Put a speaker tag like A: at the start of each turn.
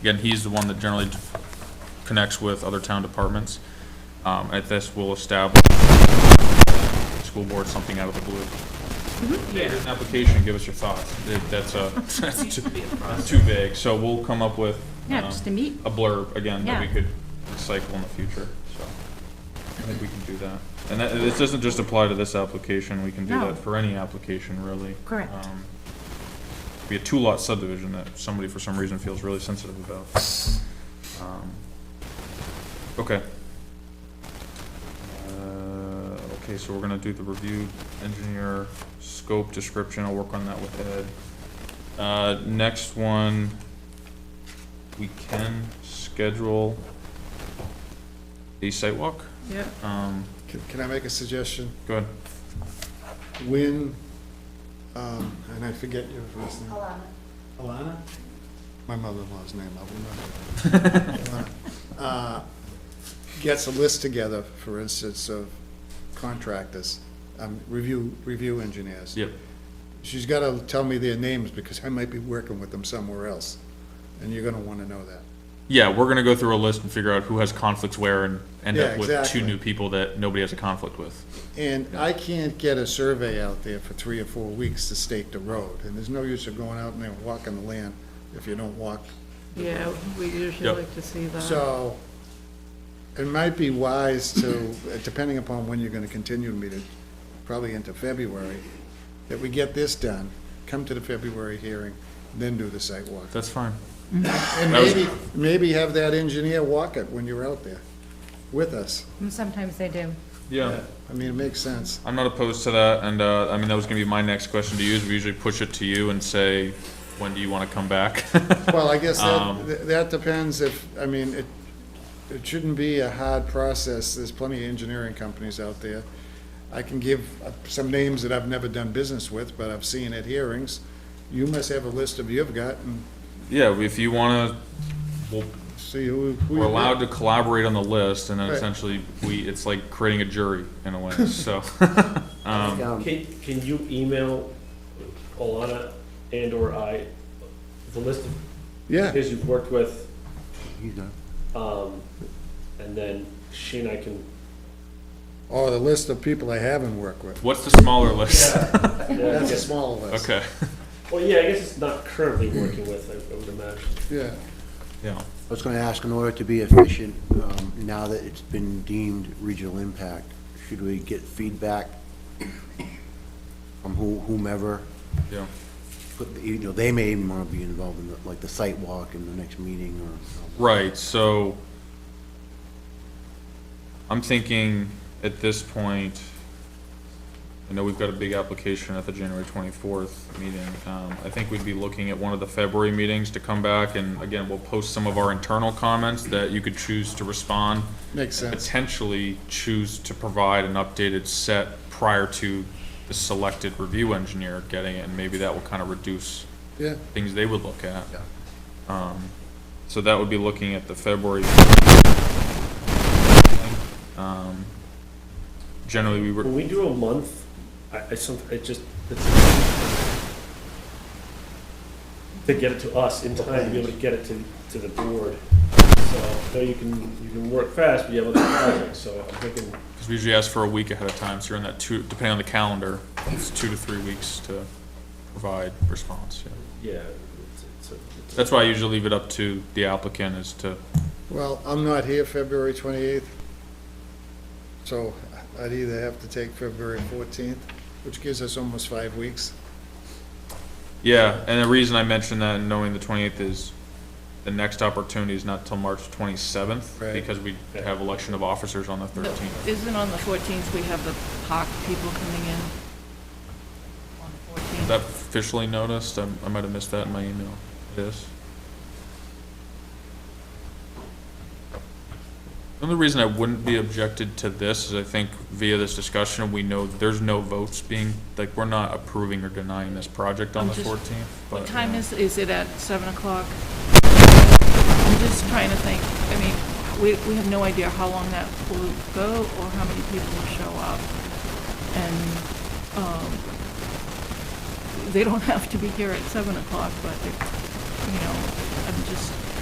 A: Again, he's the one that generally connects with other town departments. Um, At this, we'll establish school board something out of the blue. Hey, Here's an application, give us your thoughts. That- That's a, that's too- too vague, so we'll come up with. you
B: Yeah,
A: know,
B: just a meet.
A: A blurb, again, that we
B: Yeah.
A: could recycle in the future, so. I think we can do that. And that, this doesn't just apply to this application, we can do
B: No.
A: that for any application, really.
B: Correct.
A: Um, Be a two-lot subdivision that somebody for some reason feels really sensitive about. Um, Okay. Uh, Okay, so we're gonna do the review engineer scope description, I'll work on that with Ed. Uh, next one, we can schedule a site walk,
B: Yeah.
A: um,
C: Can can I make a suggestion?
A: go ahead.
C: When, um, and I forget your first name. Alana. Alana? My mother-in-law's name, I'll remember. Uh, Gets a list together, for instance, of contractors, um, review, review engineers.
A: Yep.
C: She's gotta tell me their names because I might be working with them somewhere else, and you're gonna wanna know that.
A: Yeah, we're gonna go through a list and figure out who has conflicts where and end
C: Yeah,
A: up with two
C: exactly.
A: new people that nobody has a conflict with.
C: And I can't get a survey out there for three or four weeks to stake the road, and there's no use of going out and then walking the land if you don't walk.
D: Yeah, we usually
A: Yep.
D: like to see that.
C: So it might be wise to, depending upon when you're gonna continue the meeting, probably into February, that we get this done, come to the February hearing, then do the site walk.
A: That's fine.
C: And
A: that was-
C: maybe, maybe have that engineer walk it when you're out there with us.
B: And Sometimes they do.
A: Yeah.
C: I mean, it makes sense.
A: I'm not opposed to that, and, uh, I mean, that was gonna be my next question to you, is we usually push it to you and say, when do you wanna come back?
C: Well, I guess
A: Um,
C: that, that depends if, I mean, it, it shouldn't be a hard process, there's plenty of engineering companies out there. I can give uh, some names that I've never done business with, but I've seen at hearings. You must have a list of you've got and
A: Yeah, if you wanna, we'll
C: see who, who.
A: We're
C: you-
A: allowed to collaborate on the list, and then
C: Right.
A: essentially, we, it's like creating a jury in a way, so.
E: Can, can you email Alana and/or I the list of
C: Yeah,
E: his you've worked with? Um, and then she and I can,
C: or the list of people I haven't worked with.
A: What's the smaller list?
E: yeah, I
C: That's a
E: guess,
C: small list.
A: Okay,
E: well, yeah, I guess it's not currently working with, I I would imagine.
C: Yeah,
A: yeah,
F: I was going to ask, in order to be efficient, um, now that it's been deemed regional impact, should we get feedback from who- whomever?
A: yeah,
F: Put- You know, they may even want to be involved in, the- like, the site walk in the next meeting or.
A: right, so. I'm thinking at this point, I know we've got a big application at the January twenty-fourth meeting. Um, I think we'd be looking at one of the February meetings to come back, and again, we'll post some of our internal comments that you could choose to respond.
C: makes sense.
A: potentially choose to provide an updated set prior to the selected review engineer getting it, and maybe that will kind of reduce
C: Yeah,
A: things they would look at.
F: Yeah.
A: Um, So that would be looking at the February. Um, Generally, we
E: When
A: were,
E: we do a month, I, I some, it just, it's. To get it to us in time, to be able to get it to, to the board. So, I know you can, you can work fast, but you have other projects, so I'm thinking,
A: because we usually ask for a week ahead of time, so you're in that two, depending on the calendar, it's two to three weeks to provide response. yeah.
E: yeah. it's- it's a- it's a-
A: That's why I usually leave it up to the applicant is to,
C: well, I'm not here February twenty-eighth. So I'd either have to take February fourteenth, which gives us almost five weeks.
A: Yeah, and the reason I mentioned that and knowing the twenty-eighth is the next opportunity is not till March twenty-seventh,
C: Right.
A: because we have election of officers on the
D: No,
A: thirteenth.
D: Isn't on the 14th, we have the park people coming in? On the
A: Is
D: 14th?
A: that officially noticed? I, I might have missed that in my email. It is. The only reason I wouldn't be objected to this is I think via this discussion, we know there's no votes being, like, we're not approving or denying this project on
D: I'm
A: the
D: just-
A: fourteenth.
D: What time is, is it at 7 o'clock? I'm just trying to think, I mean, we, we have no idea how long that will go or how many people will show up. And, um, they don't have to be here at 7 o'clock, but, it- you know, I'm just